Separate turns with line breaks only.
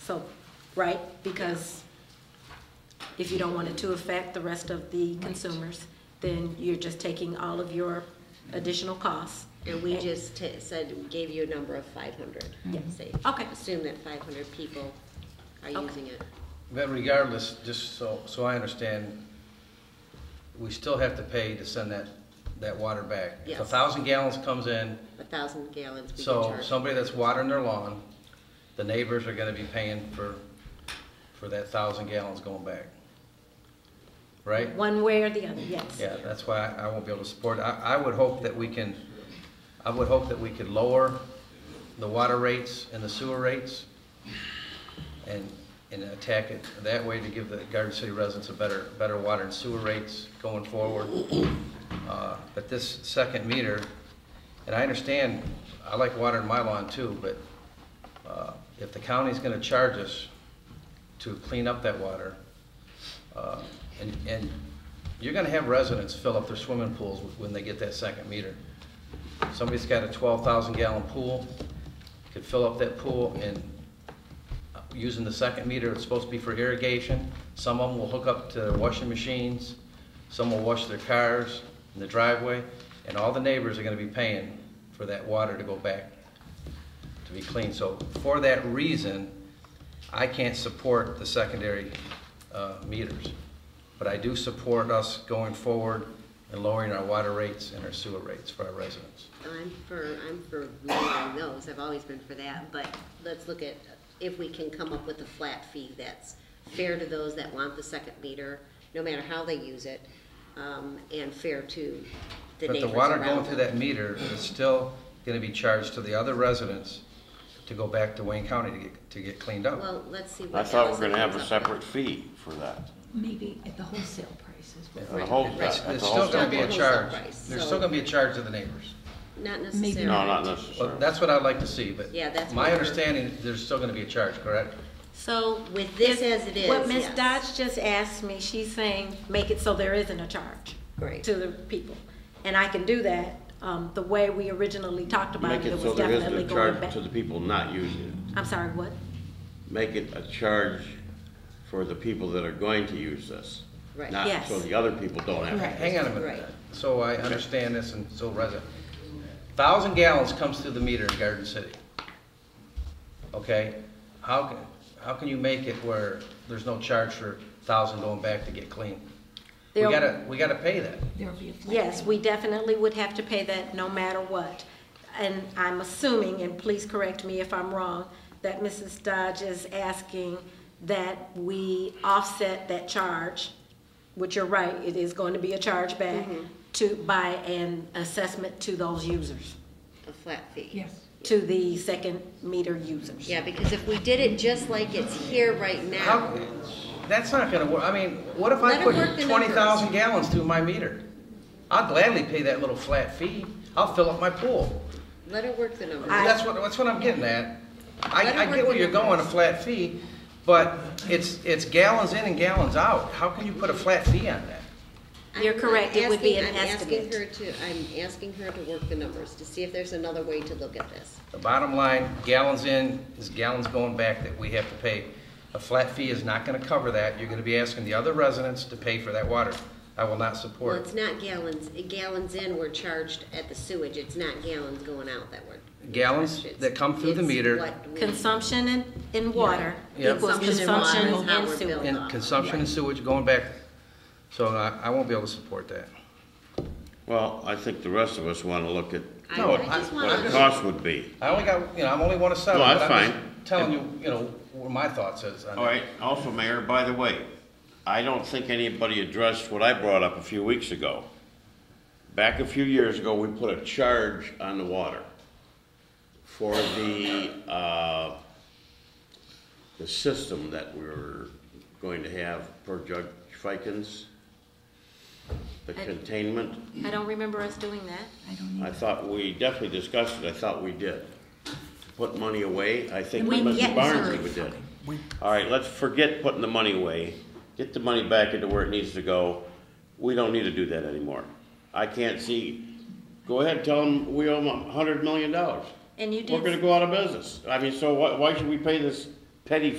So, right, because if you don't want it to affect the rest of the consumers, then you're just taking all of your additional costs.
And we just ta- said, gave you a number of five hundred. Say,
Mm-hmm. Okay.
assume that five hundred people are
Okay.
using it.
But regardless, just so, so I understand, we still have to pay to send that, that water back. If a
Yes.
thousand gallons comes in,
A thousand gallons we can
so
charge.
somebody that's watering their lawn, the neighbors are gonna be paying for, for that thousand gallons going back. Right?
One way or the other, yes.
Yeah, that's why I- I won't be able to support. it. I, I would hope that we can, I would hope that we could lower the water rates and the sewer rates and, and attack it that way to give the Garden City residents a better, better water and sewer rates going forward. Uh, But this second meter, and I understand, I like watering my lawn too, but uh, if the county's gonna charge us to clean up that water, uh, And, and you're gonna have residents fill up their swimming pools when they get that second meter. Somebody's got a twelve thousand gallon pool, could fill up that pool and uh, using the second meter, it's supposed to be for irrigation. Some of them will hook up to their washing machines, some will wash their cars in the driveway, and all the neighbors are gonna be paying for that water to go back to be clean. So for that reason, I can't support the secondary uh, meters. But I do support us going forward and lowering our water rates and our sewer rates for our residents.
I'm for, I'm for lowering those, I've always been for that, but let's look at if we can come up with a flat fee that's fair to those that want the second meter, no matter how they use it, um, and fair to the
But
neighbors
the
around
water going through
them.
that meter is still going to be charged to the other residents to go back to Wayne County to get, to get cleaned up.
Well, let's see what.
I thought we
Allison
were gonna have a
comes up with.
separate fee for that.
Maybe at the wholesale price is what
The
we're.
whole,
Right.
that's
There's
the
still
whole
going to be a
Wholesale
charge,
price,
there's
so-
still going to be a charge to the neighbors.
Not
Maybe
No,
necessarily.
not
Well,
necessarily.
that's what I'd like to see, but
Yeah, that's
my
what we're-
understanding, there's still going to be a charge, correct?
So.
With this
if-
as it is,
What Ms.
yes.
Dodge just asked me, she's saying, make it so there isn't a charge.
Great.
To the people. And I can do that, um, the way we originally talked about
Make
it, it
it so
was
there isn't
definitely
a
going
charge
back.
to the people not using it.
I'm sorry, what?
Make it a charge for the people that are going to use this.
Right.
Not
Yes.
so the other people don't have it.
Hang on a minute,
Right.
so I understand this and so resident. Thousand gallons comes through the meter in Garden City. Okay, how can, how can you make it where there's no charge for thousand going back to get clean? We
There-
gotta, we gotta pay that.
There'll be a flat
Yes,
fee.
we definitely would have to pay that no matter what. And I'm assuming, and please correct me if I'm wrong, that Mrs. Dodge is asking that we offset that charge, which you're right, it is going to be a charge back
Mm-hmm.
to, by an assessment to those users,
A flat fee.
Yes.
to the second meter users.
Yeah, because if we did it just like it's here right
How,
now,
that's not gonna work, I mean, what if
Let
I
'em
put
work the
twenty thousand gallons through my meter? I'll gladly pay that little flat fee, I'll fill up my pool.
let it work the numbers.
I-
That's what, that's what I'm getting at.
Let
I, I
it
get
work
where you're
the
going, a
numbers.
flat fee, but it's, it's gallons in and gallons out. How can you put a flat fee on that?
You're
I'm
correct, it would be an
asking- I'm
estimate.
asking her to, I'm asking her to work the numbers, to see if there's another way to look at this.
The bottom line, gallons in is gallons going back that we have to pay. A flat fee is not gonna cover that. You're gonna be asking the other residents to pay for that water. I will not
Well,
support it.
it's not gallons, gallons in were charged at the sewage, it's not gallons going out that were.
Gallons that come through the
It's
meter
what we-
Consumption in, in water
Yeah.
equals
Consumption in water is
consumption
how
in
we're
sewer.
billed.
and consumption and sewage going back. So uh, I, I won't be able to support that.
Well, I think the rest of us wanna look at
I,
No,
I
I-
just
what the
wanna,
cost would be.
I only got, you know, I'm only one of seven.
No,
but
that's
I'm just
fine.
Telling you, you know, what my thoughts is on that.
All right, also, Mayor, by the way, I don't think anybody addressed what I brought up a few weeks ago. Back a few years ago, we put a charge on the water for the, uh, the system that we were going to have per Judge Fikens, the containment.
I don't remember us doing that.
I don't
I
need,
thought we definitely discussed it, I thought we did. To Put money away, I think
We-
Mr.
yes.
Barnes even did. All right, let's forget putting the money away, get the money back into where it needs to go. We don't need to do that anymore. I can't see, go ahead, tell them we owe them a hundred million dollars.
And you did.
We're gonna go out of business. I mean, so why, why should we pay this petty